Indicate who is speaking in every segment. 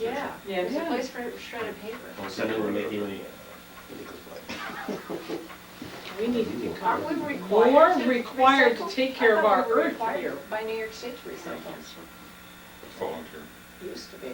Speaker 1: Yeah,
Speaker 2: Yeah,
Speaker 1: there's a
Speaker 2: yeah.
Speaker 1: place for a shred of paper.
Speaker 3: All of a sudden, we're making a
Speaker 2: We need to become
Speaker 1: Aren't we required
Speaker 2: more
Speaker 1: to
Speaker 2: required to
Speaker 1: recycle?
Speaker 2: take
Speaker 1: I
Speaker 2: care of
Speaker 1: thought
Speaker 2: our
Speaker 1: we were
Speaker 2: earth
Speaker 1: required
Speaker 2: here.
Speaker 1: By New York State to recycle,
Speaker 4: volunteer.
Speaker 1: used to be.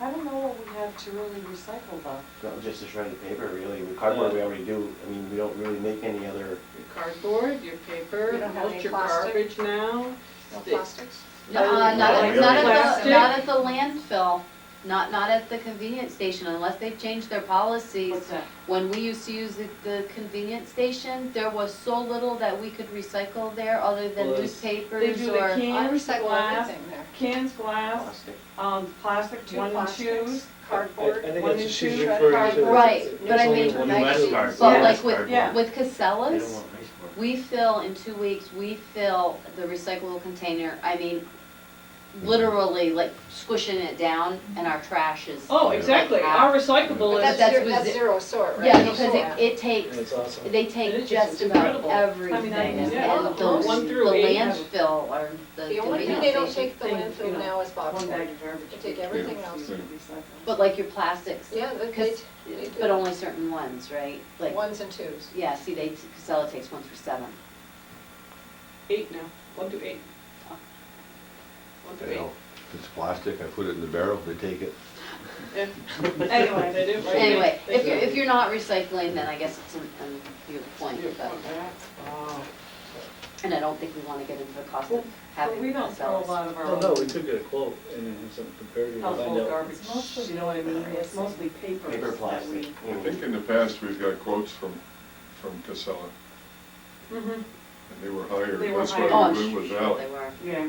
Speaker 2: I don't know what we have to really recycle though.
Speaker 3: Not just a shred of paper, really, with cardboard we already do, I mean, we don't really make any other,
Speaker 2: Your cardboard, your paper,
Speaker 1: We don't have
Speaker 2: most
Speaker 1: any
Speaker 2: your
Speaker 1: plastic?
Speaker 2: garbage now.
Speaker 1: No
Speaker 2: Stick.
Speaker 1: plastics?
Speaker 5: No,
Speaker 2: Oh,
Speaker 5: uh, not at,
Speaker 3: Really?
Speaker 5: not at the,
Speaker 2: Plastic?
Speaker 5: not at the landfill, not, not at the convenience station, unless they've changed their policies.
Speaker 2: that?
Speaker 5: When we used to use the, the convenience station, there was so little that we could recycle there, other than
Speaker 4: Well, it's-
Speaker 2: They
Speaker 5: newspapers
Speaker 2: do
Speaker 5: or.
Speaker 2: the cans,
Speaker 1: Recycle
Speaker 2: glass,
Speaker 1: everything there.
Speaker 2: cans, glass,
Speaker 3: plastic.
Speaker 2: um, plastic,
Speaker 1: Two
Speaker 2: one and
Speaker 1: plastics,
Speaker 2: twos.
Speaker 1: cardboard.
Speaker 6: I
Speaker 2: One
Speaker 6: think that's
Speaker 2: and
Speaker 6: what she's
Speaker 2: two, red
Speaker 6: referring to.
Speaker 2: cardboard.
Speaker 5: Right, but
Speaker 6: It's
Speaker 5: I
Speaker 6: only
Speaker 5: mean,
Speaker 6: one
Speaker 5: I
Speaker 3: less
Speaker 5: should-
Speaker 3: cardboard.
Speaker 5: but
Speaker 2: Yeah.
Speaker 5: like
Speaker 2: Yeah.
Speaker 5: with, with
Speaker 3: They don't
Speaker 5: Casellas,
Speaker 3: want ice for it.
Speaker 5: we fill, in two weeks, we fill the recyclable container, I mean, literally, like squishing it down, and our trash is.
Speaker 2: Oh,
Speaker 5: like
Speaker 2: exactly,
Speaker 5: half.
Speaker 2: our recyclable
Speaker 1: But
Speaker 2: is,
Speaker 1: that's,
Speaker 5: That- that's
Speaker 1: zero-
Speaker 5: with
Speaker 1: that's
Speaker 5: it.
Speaker 1: zero sort, right?
Speaker 5: Yeah,
Speaker 2: Yeah.
Speaker 5: because it, it takes,
Speaker 6: It's awesome.
Speaker 5: they
Speaker 2: It
Speaker 5: take
Speaker 2: is just
Speaker 5: just about
Speaker 2: incredible.
Speaker 5: everything,
Speaker 2: I mean,
Speaker 5: and
Speaker 2: yeah,
Speaker 5: and the,
Speaker 2: those one
Speaker 5: the
Speaker 2: through eight have-
Speaker 5: landfill or the
Speaker 1: The only thing
Speaker 5: convenience
Speaker 1: they don't
Speaker 5: station.
Speaker 1: take the
Speaker 2: Things, you
Speaker 1: landfill
Speaker 2: know,
Speaker 1: now is box
Speaker 2: one bag
Speaker 1: culvert.
Speaker 2: of garbage.
Speaker 1: They take everything
Speaker 4: Yeah.
Speaker 1: else.
Speaker 5: But like your plastics,
Speaker 1: Yeah, they, they,
Speaker 5: Because-
Speaker 1: they
Speaker 5: but
Speaker 1: do
Speaker 5: only certain ones, right? Like,
Speaker 1: ones and twos.
Speaker 5: yeah, see, they, Casella takes one for seven.
Speaker 2: Eight now, one through eight. One through
Speaker 7: You know,
Speaker 2: eight,
Speaker 7: if it's plastic, I put it in the barrel, they take it.
Speaker 2: yeah, anyway, they do. right?
Speaker 5: Anyway,
Speaker 2: They
Speaker 5: if
Speaker 2: do.
Speaker 5: you're, if you're not recycling, then I guess it's an, an, your point,
Speaker 2: Your
Speaker 5: but,
Speaker 2: point, right? Wow.
Speaker 5: and I don't think we wanna get into the cost
Speaker 2: Well,
Speaker 5: of
Speaker 2: But
Speaker 5: having
Speaker 2: we don't throw a
Speaker 5: Casellas.
Speaker 2: lot of our
Speaker 6: No, no, we
Speaker 2: own
Speaker 6: could get a quote and then have something comparative, and find
Speaker 2: household
Speaker 6: out.
Speaker 2: garbage,
Speaker 1: It's mostly-
Speaker 2: you know what I mean, it's mostly papers.
Speaker 3: Paper,
Speaker 2: that
Speaker 3: plastic.
Speaker 2: we-
Speaker 4: I think in the past, we've got quotes from, from Casella,
Speaker 2: Mhm,
Speaker 4: and they were higher.
Speaker 2: They were
Speaker 4: That's
Speaker 2: higher.
Speaker 5: Oh,
Speaker 4: why
Speaker 5: I'm
Speaker 4: the bid was
Speaker 5: sure
Speaker 4: out.
Speaker 5: they were.
Speaker 2: yeah.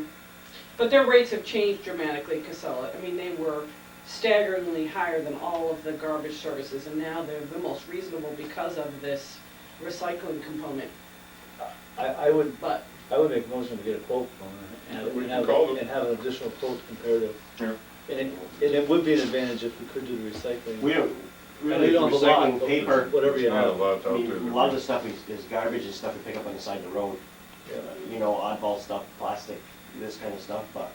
Speaker 2: But their rates have changed dramatically, Casella, I mean, they were staggeringly higher than all of the garbage services, and now they're the most reasonable because of this recycling component,
Speaker 6: I, I would,
Speaker 2: but
Speaker 6: I would make a motion to get a quote from her
Speaker 4: We
Speaker 6: and
Speaker 4: can
Speaker 6: have,
Speaker 4: call them.
Speaker 6: and have an additional quote comparative.
Speaker 4: Yeah.
Speaker 6: And it, and it would be an advantage if we could do the recycling.
Speaker 3: We don't,
Speaker 6: I
Speaker 3: really,
Speaker 6: don't have a lot,
Speaker 3: recycling
Speaker 6: but
Speaker 3: paper,
Speaker 6: Whatever
Speaker 4: There's
Speaker 6: you
Speaker 4: not a
Speaker 6: have.
Speaker 4: lot out
Speaker 3: I
Speaker 4: there.
Speaker 3: mean,
Speaker 4: that
Speaker 3: a lot of the
Speaker 4: we-
Speaker 3: stuff is, is garbage, is stuff we pick up on the side of the road,
Speaker 6: Yeah.
Speaker 3: you know, oddball stuff, plastic, this kind of stuff, but,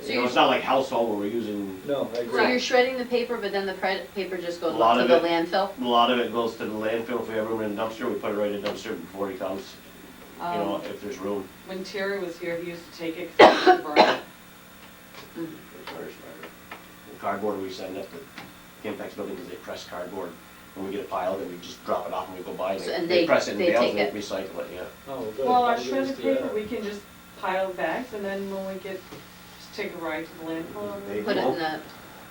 Speaker 5: So
Speaker 3: you know,
Speaker 5: you're-
Speaker 3: it's not like household where we're using,
Speaker 6: No, I
Speaker 5: So you're
Speaker 6: agree.
Speaker 5: shredding the paper, but then the pre- paper just goes
Speaker 3: A lot
Speaker 5: to
Speaker 3: of
Speaker 5: the
Speaker 3: it.
Speaker 5: landfill?
Speaker 3: a lot of it goes to the landfill, if we ever run a dumpster, we put it right in the dumpster before he comes, you know,
Speaker 2: Um,
Speaker 3: if there's room.
Speaker 2: when Terry was here, he used to take it, 'cause he used to burn it.
Speaker 3: The Cardboard we send up to Kimpex building because they press cardboard. When we get a pile, then we just drop it off and we go buy it.
Speaker 5: So- and
Speaker 3: They
Speaker 5: they-
Speaker 3: press it in
Speaker 5: they
Speaker 3: bales
Speaker 5: take
Speaker 3: and they recycle it, yeah.
Speaker 6: Oh, good.
Speaker 2: Well, our
Speaker 6: I'll give
Speaker 2: shredded
Speaker 6: this to you.
Speaker 2: paper, we can just pile bags, and then when we get, just take a ride to the landfill. and-
Speaker 3: They-
Speaker 5: Put it in the,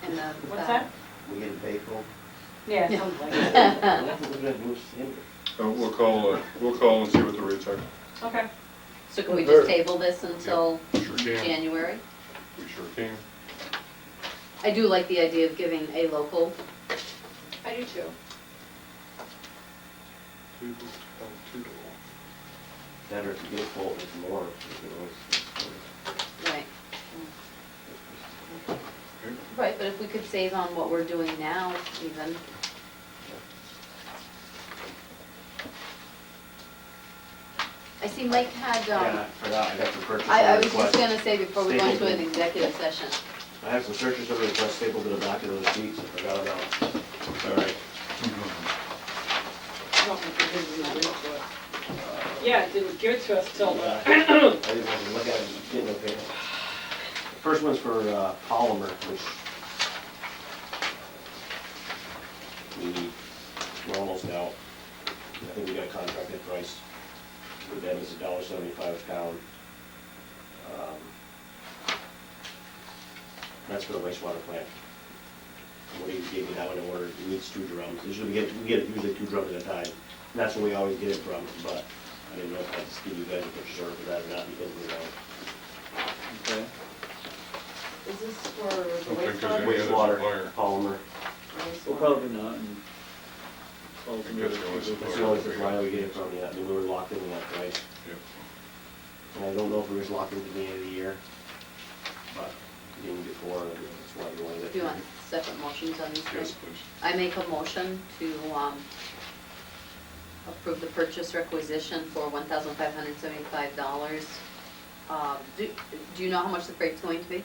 Speaker 5: in the.
Speaker 2: What's
Speaker 5: uh,
Speaker 2: that?
Speaker 3: We get a bagel.
Speaker 2: Yeah, something like that.
Speaker 4: Uh, We'll call, uh, we'll call and see what the rates are.
Speaker 2: Okay.
Speaker 5: So can we
Speaker 6: Sure.
Speaker 5: just table this until
Speaker 4: Sure can.
Speaker 5: January?
Speaker 4: We sure can.
Speaker 5: I do like the idea of giving a local,
Speaker 1: I do too.
Speaker 4: Toodle, oh, toodle.
Speaker 3: Better if you get full with more. you can
Speaker 5: Um.
Speaker 3: always-
Speaker 5: right? Right, but if we could save on what we're doing now even, I see Mike had,
Speaker 3: Yeah,
Speaker 5: um,
Speaker 3: I forgot, I got some purchase
Speaker 5: I, I
Speaker 3: order
Speaker 5: was just
Speaker 3: requests.
Speaker 5: gonna say before we go into an executive session,
Speaker 3: I have some purchase order requests stapled to the back of those sheets, I forgot about. All right.
Speaker 2: I don't think it is in the real book. Yeah, it didn't give it to us till,
Speaker 3: Uh,
Speaker 2: the-
Speaker 3: I didn't have to look at it, didn't look at it. First one's for uh, polymer, which we, we're almost out. I think we got a contracted price with them, it's a dollar seventy-five a pound. Um, That's for the wastewater plant. What do you gave me that one in order, it needs two drums, usually we get, we get usually two drums at a time. And that's where we always get it from, but I didn't know if I'd just give you guys a picture order for that or not, because uh, we don't.
Speaker 6: Okay.
Speaker 2: is this for the
Speaker 4: Don't think there's
Speaker 2: wastewater?
Speaker 4: any- other
Speaker 3: wastewater
Speaker 4: supplier.
Speaker 3: polymer.
Speaker 6: Well, probably not. and-
Speaker 4: guess there was some-
Speaker 3: That's the only supplier we get it from, yeah, I mean, we were locked in that price.
Speaker 4: Yep.
Speaker 3: And I don't know if we was locked in at the end of the year, but even before, and that's why we wanted it.
Speaker 5: do you want separate motions on these things?
Speaker 4: Yes, please.
Speaker 5: I make a motion to um, approve the purchase requisition for $1,575. Um, Do do you know how much the freight's going to be?